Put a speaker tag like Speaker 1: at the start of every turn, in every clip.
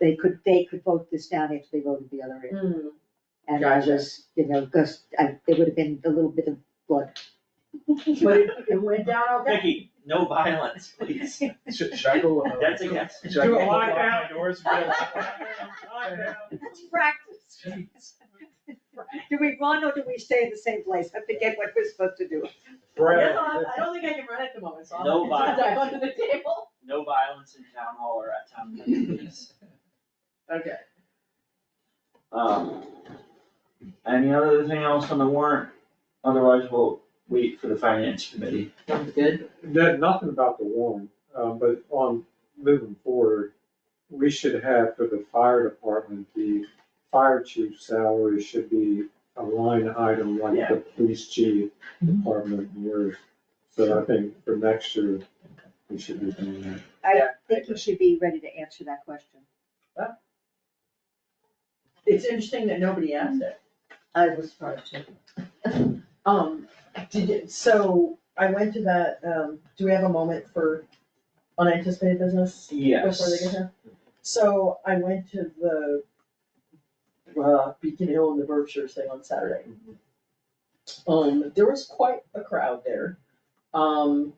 Speaker 1: they could, they could vote this down if they voted the other in.
Speaker 2: Hmm,
Speaker 1: And I
Speaker 2: Gotcha.
Speaker 1: was, you know, because I, there would have been a little bit of blood.
Speaker 2: but it, it went down okay.
Speaker 3: Vicky, no violence, please.
Speaker 4: Should, should I go? uh,
Speaker 3: That's a yes.
Speaker 4: Should I go?
Speaker 5: lock
Speaker 4: out.
Speaker 5: my doors.
Speaker 1: It's practice. Do we run or do we stay in the same place? I forget what we're supposed to do.
Speaker 2: I
Speaker 4: Brad,
Speaker 2: guess I'll- I don't think I can run at the moment, so
Speaker 3: No
Speaker 2: I'll have to dive under the table.
Speaker 3: No violence in town hall or at town meeting, please.
Speaker 2: Okay.
Speaker 3: Um, any other thing else on the warrant? Otherwise, we'll wait for the finance committee.
Speaker 2: Sounds good.
Speaker 5: That, nothing about the warrant, um, but on moving forward, we should have for the fire department, the fire chief's salary should be a line item like the police chief
Speaker 2: Mm-hmm.
Speaker 5: department where, so I think for next year, we should be doing that.
Speaker 1: I
Speaker 2: Yeah.
Speaker 1: think you should be ready to answer that question.
Speaker 2: It's interesting that nobody asked it.
Speaker 1: I was surprised too.
Speaker 2: Um, did it, so I went to that, um, do we have a moment for unanticipated business? Before they get here? So I went to the, uh, Beacon Hill and the Berkshires thing on Saturday. Um, there was quite a crowd there. Um,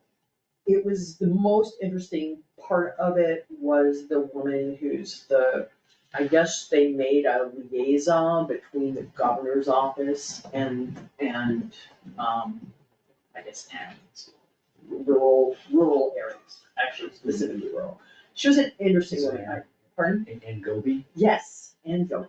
Speaker 2: it was, the most interesting part of it was the woman who's the, I guess they made a liaison between the governor's office and, and, um, I guess towns. Rural, rural areas, actually specifically rural. She was an interesting woman, I- pardon?
Speaker 4: and, and Gobi,
Speaker 2: Yes, and Dover.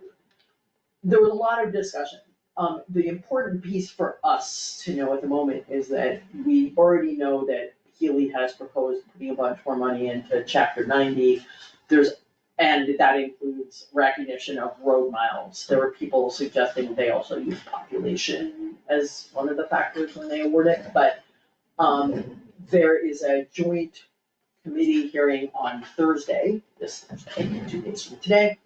Speaker 2: There was a lot of discussion. Um, the important piece for us to know at the moment is that we already know that Healy has proposed putting a bunch more money into chapter ninety. There's, and that includes recognition of road miles. There were people suggesting they also use population as one of the factors when they award it, but, um, there is a joint committee hearing on Thursday, this Thursday, two days from today,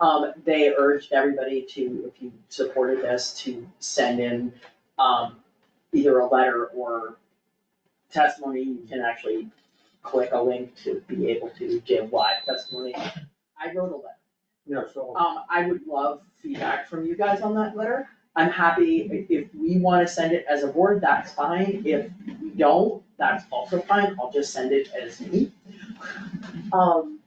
Speaker 2: um, they urged everybody to, if you supported this, to send in, um, either a letter or testimony, you can actually click a link to be able to give live testimony. I wrote a letter.
Speaker 5: Yeah, so.
Speaker 2: Um, I would love feedback from you guys on that letter. I'm happy, i- if we wanna send it as a board, that's fine, if we don't, that's also fine, I'll just send it as me. Um,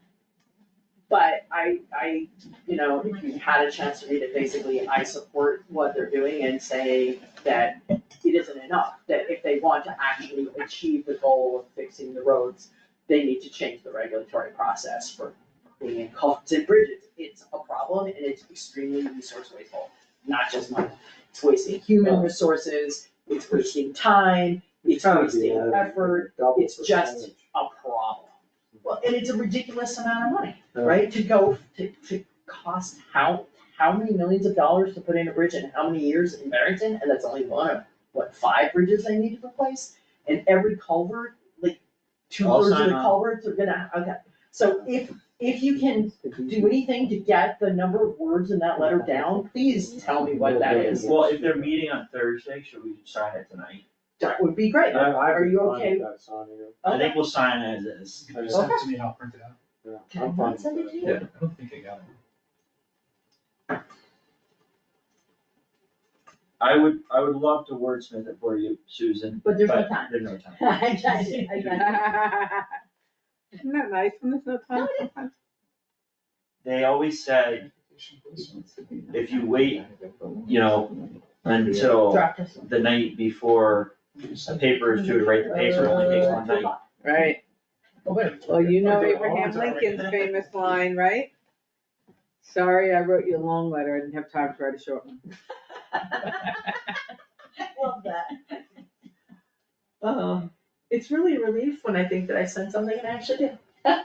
Speaker 2: but I, I, you know, if you had a chance to read it, basically, I support what they're doing and say that it isn't enough, that if they want to actually achieve the goal of fixing the roads, they need to change the regulatory process for being in culverts and bridges, it's a problem and it's extremely resource wasteful, not just money. It's wasting human resources, it's wasting time, it's
Speaker 5: gotta be
Speaker 2: wasting
Speaker 5: added,
Speaker 2: effort,
Speaker 5: double
Speaker 2: it's just-
Speaker 5: percentage.
Speaker 2: a problem. Well, and it's a ridiculous amount of money,
Speaker 5: Yeah.
Speaker 2: right, to go, to, to cost how, how many millions of dollars to put in a bridge and how many years in Barrington, and that's only one of, what, five bridges they need to replace? And every culvert, like, two
Speaker 3: I'll
Speaker 2: thirds of
Speaker 3: sign
Speaker 2: the
Speaker 3: on.
Speaker 2: culverts are gonna, okay, so if, if you can do anything to get the number of words in that letter down, please tell me what that is.
Speaker 3: Well, if they're meeting on Thursday, should we sign it tonight?
Speaker 2: That would be great.
Speaker 5: I, I.
Speaker 2: Are you okay?
Speaker 5: I'm fine with that, Sonia.
Speaker 3: I think we'll sign as is.
Speaker 5: I just-
Speaker 2: Okay.
Speaker 6: Send it to me and I'll print it out.
Speaker 5: yeah,
Speaker 2: Did I
Speaker 5: I'm
Speaker 2: not
Speaker 5: fine with
Speaker 2: send it
Speaker 5: that.
Speaker 2: to you?
Speaker 6: Yeah, I don't think I got it.
Speaker 3: I would, I would love to wordsmith it for you, Susan,
Speaker 2: But
Speaker 3: but
Speaker 2: there's no time.
Speaker 3: there's no time.
Speaker 2: I got it, I got it.
Speaker 7: Isn't that nice when there's no time sometimes?
Speaker 3: They always said if you wait, you know, until
Speaker 2: Draft us.
Speaker 3: the night before the paper is due to write the paper, it only takes one night.
Speaker 7: Right,
Speaker 6: Oh, wait.
Speaker 7: well, you know
Speaker 6: Oh,
Speaker 7: Abraham
Speaker 6: it's already-
Speaker 7: Lincoln's famous line, right? Sorry, I wrote you a long letter, I didn't have time to write a short one.
Speaker 2: Love that. Um, it's really a relief when I think that I sent something and I actually did. Yay.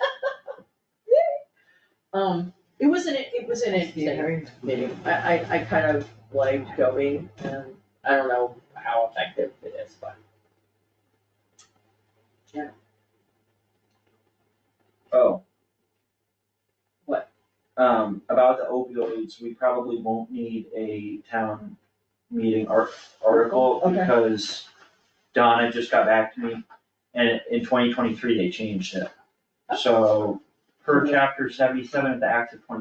Speaker 2: Um, it was an, it was an interesting meeting, I, I, I kind of liked going, and I don't know how effective it is, but.
Speaker 3: Oh.
Speaker 2: What?
Speaker 3: Um, about the opioids, we probably won't need a town meeting ar- article
Speaker 2: Okay.
Speaker 3: because Donna just got back to me and in twenty twenty-three, they changed it. So per chapter seventy-seven of the Act of twenty